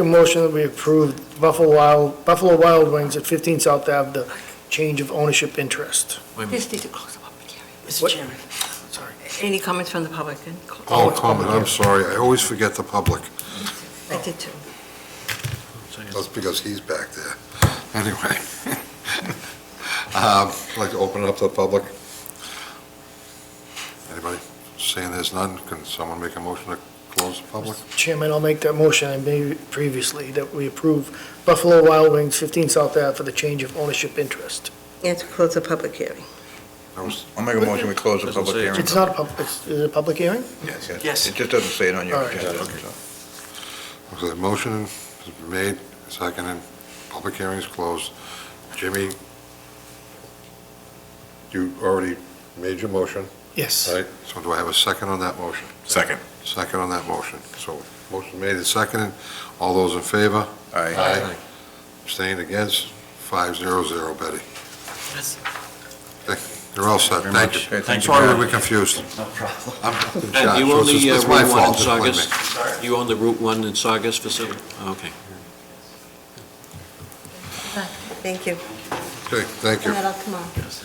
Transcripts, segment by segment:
A motion that we approve Buffalo Wild, Buffalo Wild Wings at 15 South Ave, the change of ownership interest. Wait a minute. Just need to close the public hearing. Mr. What- Chairman, Sorry. Any comments from the public? then? Close- Oh, comment, I'm sorry, I always forget the public, I did too. that's because he's back there. Anyway, Um, I'd like to open it up to the public. Anybody saying there's none, can someone make a motion to close the public? Chairman, I'll make that motion I made previously, that we approve Buffalo Wild Wings, 15 South Ave, for the change of ownership interest. Yeah, to close the public hearing. That was- I'll make a motion, we close the public hearing. It's not a public, it's is it a public hearing? Yes. It just doesn't say it on your All right. agenda. Okay, the motion has been made, seconded, public hearing is closed. Jimmy, you already made your motion, Yes. right? So do I have a second on that motion? Second. Second on that motion. So motion made and seconded. All those in favor? Aye. Abstained against? Five zero zero, Betty. Yes. You're all set. Very Thank much. you. Okay, thank you, Sorry Pat. we were confused. No problem. I'm in And charge, you so own it's just- the uh, it's my Route 1 in fault. Just blame me. Saugus? You own the Route 1 in Saugus facility? Okay. Thank you. Okay, thank you. Come out tomorrow. Yes.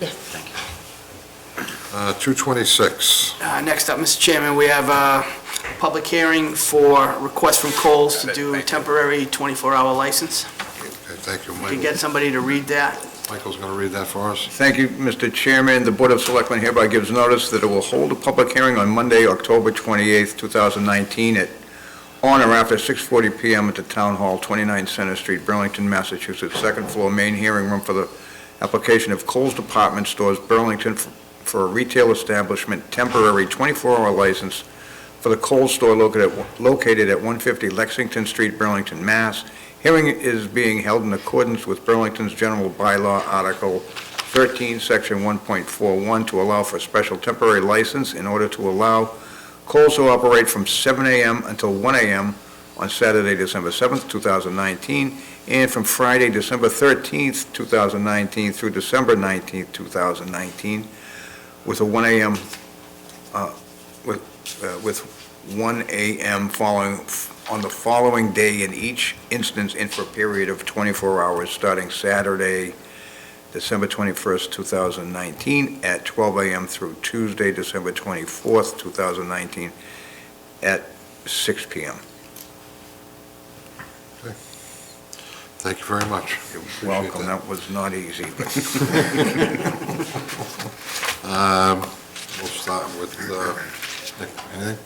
Thank you. Uh, 226. Uh, Next up, Mr. Chairman, we have a public hearing for request from Coles to do temporary 24-hour license. Okay, thank you, If you Michael. get somebody to read that, Michael's going to read that for us. Thank you, Mr. Chairman. The Board of Selectmen hereby gives notice that it will hold a public hearing on Monday, October 28th, 2019, at on or after 6:40 PM at the Town Hall, 29 Center Street, Burlington, Massachusetts, second floor, main hearing room for the application of Coles Department Stores Burlington f- for a retail establishment temporary 24-hour license for the Coles store located at- located at 150 Lexington Street, Burlington, Mass. Hearing is being held in accordance with Burlington's general bylaw, Article 13, Section 1.41, to allow for a special temporary license in order to allow Coles to operate from 7 a.m. until 1 a.m. on Saturday, December 7th, 2019, and from Friday, December 13th, 2019 through December 19th, 2019, with a 1 a.m., uh, with, uh, with 1 a.m. following, on the following day in each instance and for a period of 24 hours, starting Saturday, December 21st, 2019, at 12 a.m. through Tuesday, December 24th, 2019, at 6 p.m. Thank you very much. You're Appreciate welcome. that. That was not easy, but Um, We'll start with, uh, Nick, anything?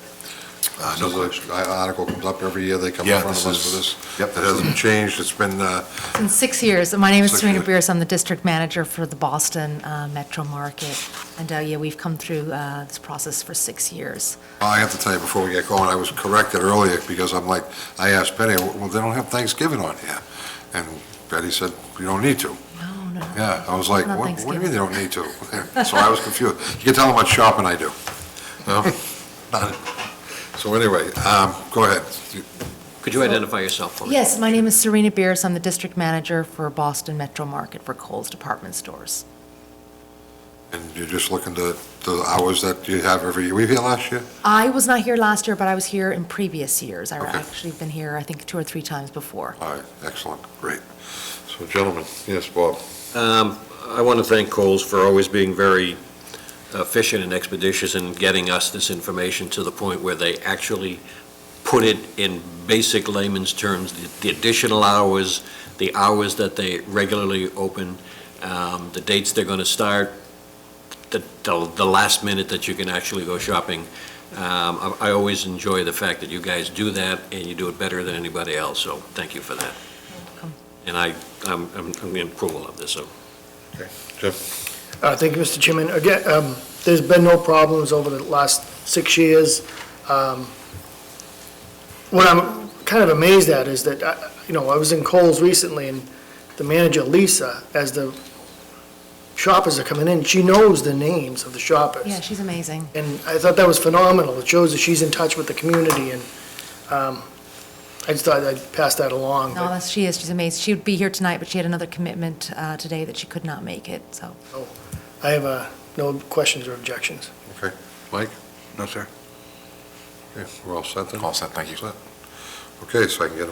Uh, no This is a- I- Article comes up every year, they come in Yeah, front of this us for is- this. yep. It hasn't changed, it's been, uh, In six years. My name is Six Serena years. Beers. I'm the district manager for the Boston uh, Metro Market. And uh, yeah, we've come through uh, this process for six years. I have to tell you, before we get going, I was corrected earlier, because I'm like, I asked Betty, well, they don't have Thanksgiving on here. And Betty said, you don't need to. No, no. Yeah, I was like, Not what what do you mean Thanksgiving. they don't need to? So I was confused. You can tell how much shopping I do. No? Not- So anyway, um, go ahead. You- Could you identify yourself for me? Yes, my name is Serena Beers. I'm the district manager for Boston Metro Market for Kohl's Department Stores. And you're just looking to, the hours that you have every year. Were you here last year? I was not here last year, but I was here in previous years. I've Okay. actually been here, I think, two or three times before. All right, excellent, great. So gentlemen, yes, Bob? Um, I want to thank Coles for always being very efficient and expeditious in getting us this information to the point where they actually put it in basic layman's terms, the- the additional hours, the hours that they regularly open, um, the dates they're going to start, the- the the last minute that you can actually go shopping. Um, I I always enjoy the fact that you guys do that, and you do it better than anybody else, so thank you for that. welcome. And I, I'm I'm- I'm in approval of this, so Uh, Thank you, Mr. Chairman. Again, um, there's been no problems over the last six years. Um, What I'm kind of amazed at is that, I- you know, I was in Kohl's recently, and the manager, Lisa, as the shoppers are coming in, she knows the names of the shoppers. Yeah, she's amazing. And I thought that was phenomenal. It shows that she's in touch with the community, and um, I just thought I'd pass that along. No, that's, she is. She's amazing. She would be here tonight, but she had another commitment uh, today that she could not make it, so. I have uh, no questions or objections. no, sir. Okay, We're all set then? All set, thank you. Set. Okay, so I can get a